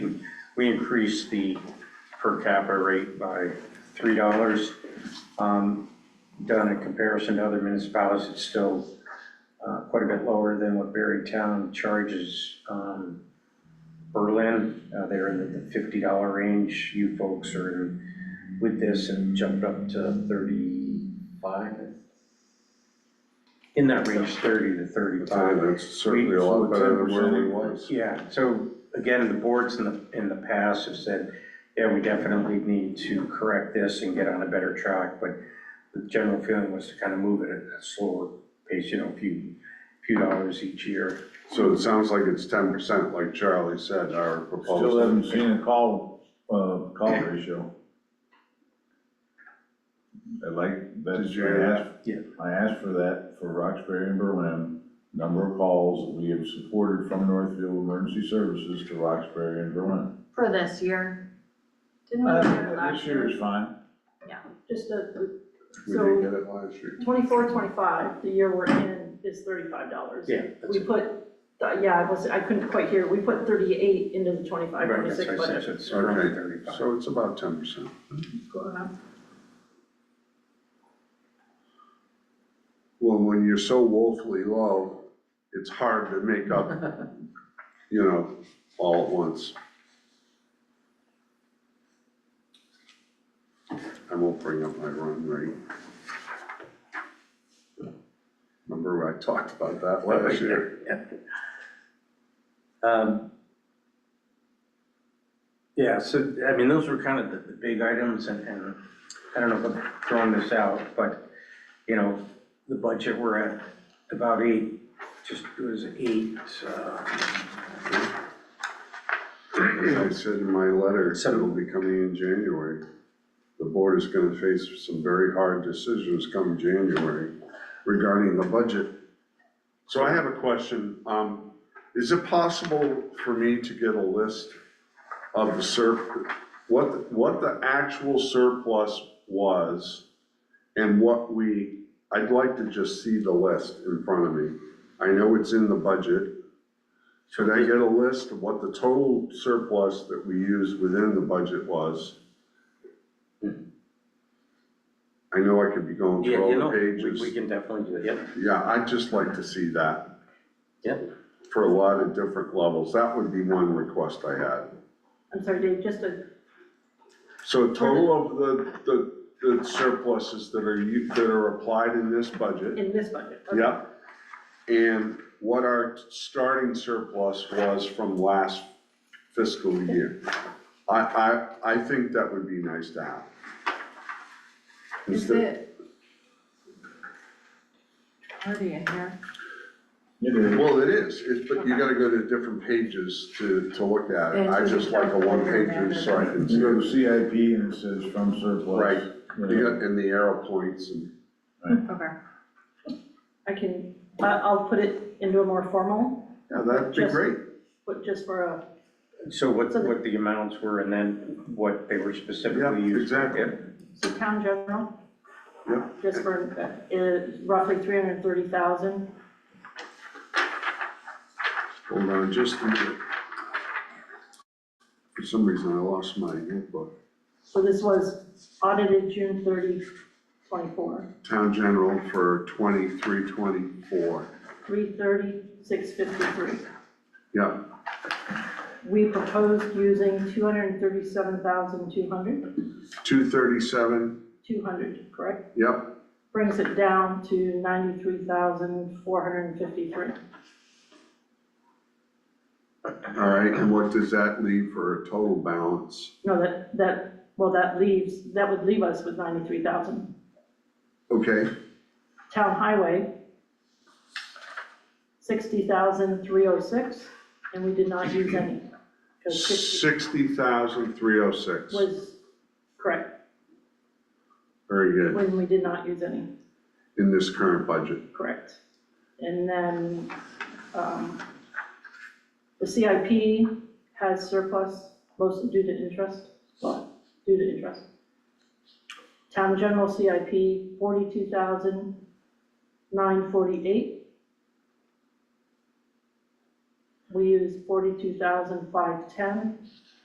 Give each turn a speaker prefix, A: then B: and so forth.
A: we increased the per capita rate by three dollars. Um, Done in comparison to other municipalities, it's still uh, quite a bit lower than what Berrytown charges um, Berlin. Uh, They're in the fifty dollar range. You folks are in with this and jumped up to thirty-five. In that range, thirty to thirty-five.
B: That's certainly a lot better than where we was.
A: Yeah, so again, the boards in the, in the past have said, yeah, we definitely need to correct this and get on a better track, but the general feeling was to kind of move it at a slower pace, you know, a few, few dollars each year.
B: So it sounds like it's ten percent, like Charlie said, our proposal.
C: Still haven't seen a call, uh, call ratio. I like, that's,
B: Did you
C: I
B: ask?
C: asked,
A: Yeah.
C: I asked for that for Roxbury and Berlin. Number of calls that we have supported from Northfield Emergency Services to Roxbury and Berlin.
D: For this year. Didn't we do it
C: Uh,
D: last
C: This year
D: year?
C: is fine.
E: Just a,
B: We didn't
E: so
B: get it last year.
E: twenty-four, twenty-five, the year we're in is thirty-five dollars.
A: Yeah. that's
E: We
A: it.
E: put, uh, yeah, I was, I couldn't quite hear, we put thirty-eight into the twenty-five,
A: Right, that's
E: twenty-six
A: what I said, so
E: budget.
A: it's around
B: Okay,
A: thirty-five.
B: so it's about ten percent.
E: Going up.
B: Well, when you're so woefully low, it's hard to make up, you know, all at once. I won't bring up my run rate. Remember I talked about that last year?
A: Um, Yeah, so, I mean, those were kind of the, the big items and, and I don't know if I'm throwing this out, but, you know, the budget we're at about eight, just, it was eight, uh,
B: As I said in my letter,
A: So-
B: it'll be coming in January. The board is gonna face some very hard decisions come January regarding the budget. So I have a question, um, is it possible for me to get a list of the sur, what, what the actual surplus was? And what we, I'd like to just see the list in front of me. I know it's in the budget, should I get a list of what the total surplus that we used within the budget was? I know I could be going
A: yeah,
B: through
A: you
B: all
A: know,
B: the
A: we, we
B: pages.
A: can definitely do that,
B: Yeah, I'd just like to see that
A: yeah,
B: for a lot of different levels. That would be one request I had.
E: I'm sorry, Dave, just a,
B: So total of the, the, the surpluses that are, u- that are applied in this budget.
E: in this budget. okay.
B: Yep. And what our starting surplus was from last fiscal year. I, I, I think that would be nice to have.
D: Is
B: Instead-
D: it? Already in here.
C: It is.
B: Well, it is, it's, but you gotta go to different pages to, to look at it.
D: Yeah,
B: I
D: so
B: just
D: you
B: like a
D: don't-
B: one pager so I can see.
C: You go to
B: it.
C: CIP and it says from surplus.
B: Right.
C: You
B: You
C: know,
B: got, and the arrow points and,
D: Okay.
E: I can, I, I'll put it into a more formal,
B: yeah, that'd be
E: Just-
B: great.
E: but just for a,
A: so what,
E: So the-
A: what the amounts were and then what they were
B: Yeah,
A: specifically used.
B: exactly.
E: so town general.
B: Yeah.
E: Just for, uh, roughly three hundred and thirty thousand.
B: Hold on just a minute. For some reason, I lost my notebook.
E: So this was audited June 30, 24,
B: Town general for twenty-three, twenty-four.
E: 330, 653.
B: Yeah,
E: We proposed using 237,200,
B: two thirty-seven,
E: 200, correct?
B: yep,
E: Brings it down to 93,453.
B: all right, and what does that leave for a total balance?
E: No, that, that, well, that leaves, that would leave us with 93,000.
B: Okay,
E: Town highway, 60,306, and we did not use any. 'cause 60
B: sixty thousand, three oh six,
E: was, correct,
B: very good,
E: when we did not use any.
B: in this current budget.
E: Correct. And then, um, the CIP has surplus, mostly due to interest, well, due to interest. Town general CIP, forty-two thousand nine forty-eight. We use forty-two thousand five ten.